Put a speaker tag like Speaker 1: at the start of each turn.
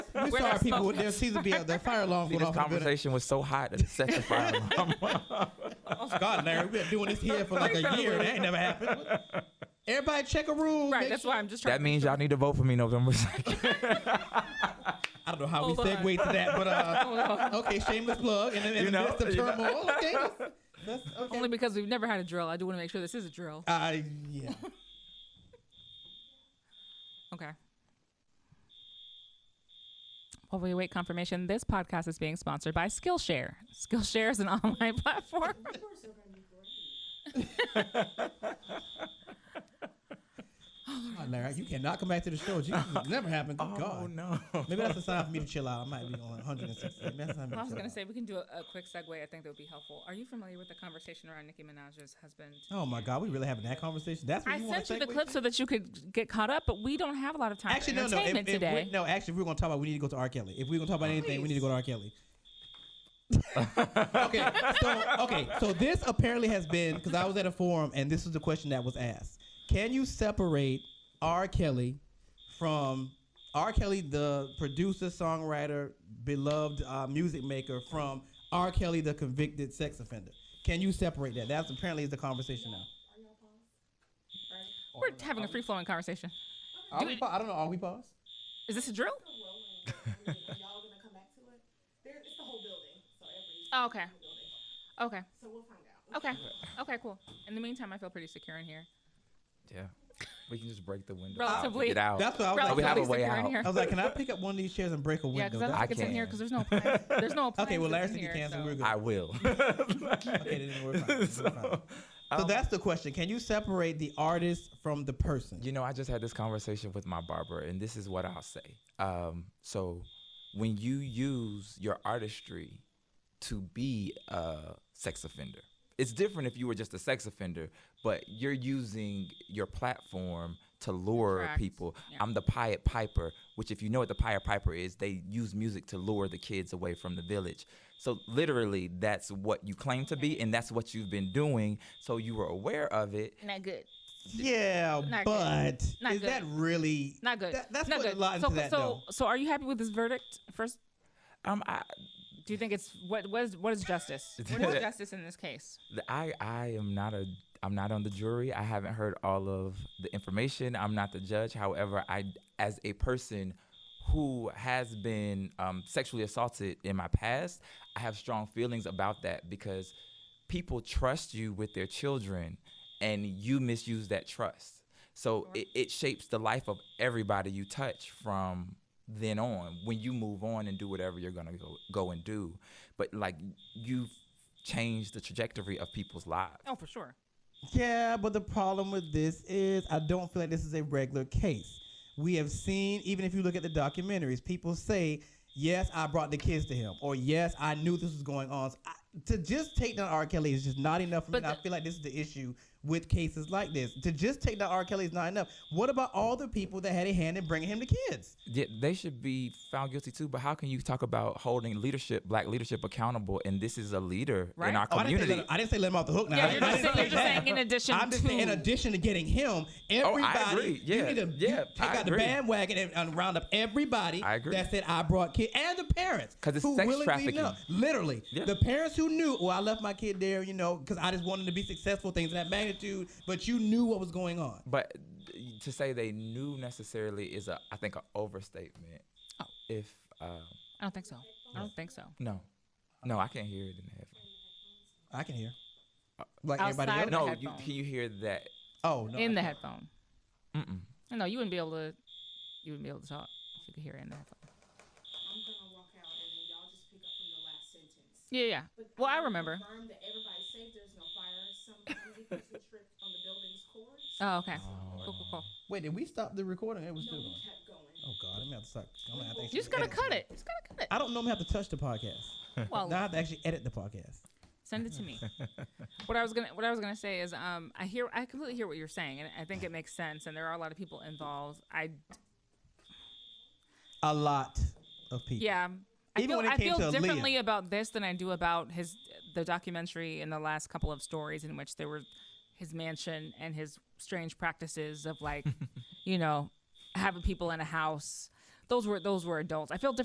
Speaker 1: We
Speaker 2: We're
Speaker 1: saw
Speaker 2: not
Speaker 1: people with their Caesar be out there. Fire alarm
Speaker 3: See,
Speaker 1: went
Speaker 3: this
Speaker 1: off. in the building.
Speaker 3: conversation was so hot that it set the fire alarm.
Speaker 1: Oh, God, Larry, we've been doing this here for like a year. That ain't never happened. Everybody check a rule.
Speaker 2: Right,
Speaker 1: make
Speaker 2: that's
Speaker 1: sure-
Speaker 2: why I'm just trying.
Speaker 3: that means y'all need to vote for me November 2nd.
Speaker 1: I don't know how we
Speaker 2: Hold on.
Speaker 1: segued to that, but
Speaker 2: Oh,
Speaker 1: uh, okay, shameless plug. And then in the
Speaker 3: You know,
Speaker 1: midst of
Speaker 3: you know.
Speaker 1: turmoil, okay, that's, that's okay.
Speaker 2: only because we've never had a drill. I do want to make sure this is a drill.
Speaker 1: uh, yeah.
Speaker 2: Okay. While we await confirmation, this podcast is being sponsored by Skillshare. Skillshare is an online platform.
Speaker 1: Oh, Larry, you cannot come back to the show. Jesus, it never happened. Good God.
Speaker 3: Oh, no.
Speaker 1: Maybe that's a sign for me to chill out. I might be on 160. Maybe that's a sign for me to
Speaker 2: I was
Speaker 1: chill
Speaker 2: going to
Speaker 1: out.
Speaker 2: say we can do a, a quick segue. I think that would be helpful. Are you familiar with the conversation around Nicki Minaj's husband?
Speaker 1: Oh my God, we really having that conversation? That's what
Speaker 2: I
Speaker 1: you want
Speaker 2: sent
Speaker 1: to
Speaker 2: you the clip so that you could get caught up, but we don't have a lot of time
Speaker 1: Actually,
Speaker 2: for
Speaker 1: no, no. If,
Speaker 2: entertainment
Speaker 1: if
Speaker 2: today.
Speaker 1: we, no, actually, if we're gonna talk about. We need to go to R. Kelly. If we're gonna talk about anything, we need to go to R. Kelly. okay, so okay, so this apparently has been because I was at a forum and this was the question that was asked: Can you separate R. Kelly from R. Kelly, the producer, songwriter, beloved uh, music maker, from R. Kelly, the convicted sex offender? Can you separate that? That's apparently is the conversation now.
Speaker 2: We're having a free flowing conversation.
Speaker 1: Are we, pa- I don't know. Are we paused?
Speaker 2: Is this a drill?
Speaker 4: y'all gonna come back to it? There, it's the whole building, so every
Speaker 2: Oh, okay.
Speaker 4: building.
Speaker 2: Okay.
Speaker 4: So we'll find out.
Speaker 2: Okay. Okay, cool. In the meantime, I feel pretty secure in here.
Speaker 3: Yeah. We can just break the window.
Speaker 2: Relatively.
Speaker 3: Get out.
Speaker 1: That's what I was
Speaker 2: Relatively
Speaker 1: like.
Speaker 3: we have a way
Speaker 2: secure in
Speaker 3: out.
Speaker 2: here.
Speaker 1: I was like, can I pick up one of these chairs and break a window?
Speaker 2: Yeah, because I don't
Speaker 1: That's-
Speaker 2: think it's in here
Speaker 3: can't.
Speaker 2: because there's no appliance. there's no appliance.
Speaker 1: okay, well, Larry said you can, so we're good.
Speaker 3: I will.
Speaker 1: okay, then we're fine. so, we're fine. so that's the question. Can you separate the artist from the person?
Speaker 3: You know, I just had this conversation with my barber, and this is what I'll say. Um, so, when you use your artistry to be a sex offender, it's different if you were just a sex offender, but you're using your platform to lure
Speaker 2: Correct.
Speaker 3: people.
Speaker 2: Yeah.
Speaker 3: I'm the Pied Piper, which, if you know what the Pied Piper is, they use music to lure the kids away from the village. So, literally, that's what you claim to be, and that's what you've been doing. So, you were aware of it.
Speaker 2: Not good.
Speaker 1: yeah,
Speaker 2: Not good.
Speaker 1: but
Speaker 2: Not
Speaker 1: is
Speaker 2: good.
Speaker 1: that really
Speaker 2: Not good.
Speaker 1: That, that's
Speaker 2: Not
Speaker 1: putting
Speaker 2: good.
Speaker 1: a lot into
Speaker 2: so,
Speaker 1: that,
Speaker 2: so,
Speaker 1: though.
Speaker 2: so, are you happy with this verdict? First,
Speaker 3: Um, I,
Speaker 2: do you think it's what? What is, what is justice? what is justice in this case?
Speaker 3: The- I I am not a I'm not on the jury. I haven't heard all of the information. I'm not the judge. However, I as a person who has been um, sexually assaulted in my past, I have strong feelings about that because people trust you with their children, and you misuse that trust. So it, it shapes the life of everybody you touch from then on when you move on and do whatever you're gonna go, go and do. But like you've changed the trajectory of people's lives.
Speaker 2: Oh, for sure.
Speaker 1: Yeah, but the problem with this is I don't feel like this is a regular case. We have seen, even if you look at the documentaries, people say, "Yes, I brought the kids to him," or "Yes, I knew this was going on." So I, to just take down R. Kelly is just not enough for me.
Speaker 2: But
Speaker 1: and I
Speaker 2: the-
Speaker 1: feel like this is the issue with cases like this. To just take down R. Kelly is not enough. What about all the people that had a hand in bringing him the kids?
Speaker 3: Yeah, they should be found guilty too. But how can you talk about holding leadership, black leadership, accountable? And this is a leader
Speaker 2: Right.
Speaker 3: in our
Speaker 1: Oh, I, didn't say
Speaker 3: community.
Speaker 1: let, I didn't say let him off the hook. Now
Speaker 2: Yeah,
Speaker 1: I-
Speaker 2: you're
Speaker 1: I
Speaker 2: just
Speaker 1: didn't
Speaker 2: saying-
Speaker 1: say
Speaker 2: you're just
Speaker 1: that.
Speaker 2: saying in addition
Speaker 1: I'm just saying in
Speaker 2: to.
Speaker 1: addition to getting him, everybody.
Speaker 3: Oh, agree. Yeah,
Speaker 1: you need to you
Speaker 3: yeah,
Speaker 1: take
Speaker 3: I
Speaker 1: out the
Speaker 3: agree.
Speaker 1: bandwagon and, and round up everybody.
Speaker 3: I agree.
Speaker 1: That said, I brought kid and the parents
Speaker 3: 'Cause it's
Speaker 1: who
Speaker 3: sex
Speaker 1: willingly
Speaker 3: trafficking.
Speaker 1: know- Literally,
Speaker 3: Yeah.
Speaker 1: the parents who knew. Well, I left my kid there, you know, because I just wanted to be successful, things of that magnitude. But you knew what was going on.
Speaker 3: but to say they knew necessarily is a, I think, an overstatement.
Speaker 2: Oh.
Speaker 3: If uh,
Speaker 2: I don't think so. I don't think so.
Speaker 3: no, no, I can't hear it in the headphones.
Speaker 1: I can hear. Like
Speaker 2: Outside
Speaker 1: everybody else.
Speaker 2: of-
Speaker 3: No, you,
Speaker 2: headphones.
Speaker 3: can you hear that?
Speaker 1: Oh no.
Speaker 2: in
Speaker 1: I
Speaker 2: the
Speaker 1: can't.
Speaker 2: headphone. Mm-mm. No, you wouldn't be able to. You wouldn't be able to talk if you could hear it in the headphone.
Speaker 4: I'm gonna walk out and then y'all just pick up from the last sentence.
Speaker 2: Yeah, yeah. Well, I remember.
Speaker 4: Confirm that everybody's safe. There's no fire. Some crazy person tripped on the building's cords.
Speaker 2: Oh, okay. Cool, cool, cool.
Speaker 1: Wait, did we stop the recording? It was still going.
Speaker 4: We kept going.
Speaker 1: Oh God, I'm gonna have to stop. I'm gonna have to
Speaker 2: You just gotta cut it. You just gotta cut
Speaker 1: I don't normally have to touch the podcast.
Speaker 2: it.
Speaker 1: Now I
Speaker 2: Well,
Speaker 1: have to actually edit the podcast.
Speaker 2: send it to me. What I was gonna what I was gonna say is um I hear I completely hear what you're saying and I think it makes sense and there are a lot of people involved. I
Speaker 1: A lot of people.
Speaker 2: yeah. I
Speaker 1: Even
Speaker 2: feel,
Speaker 1: when it
Speaker 2: I
Speaker 1: came
Speaker 2: feel
Speaker 1: to Aaliyah.
Speaker 2: differently about this than I do about his the documentary and the last couple of stories in which there were his mansion and his strange practices of like, you know, having people in a house. Those were those were adults. I feel differently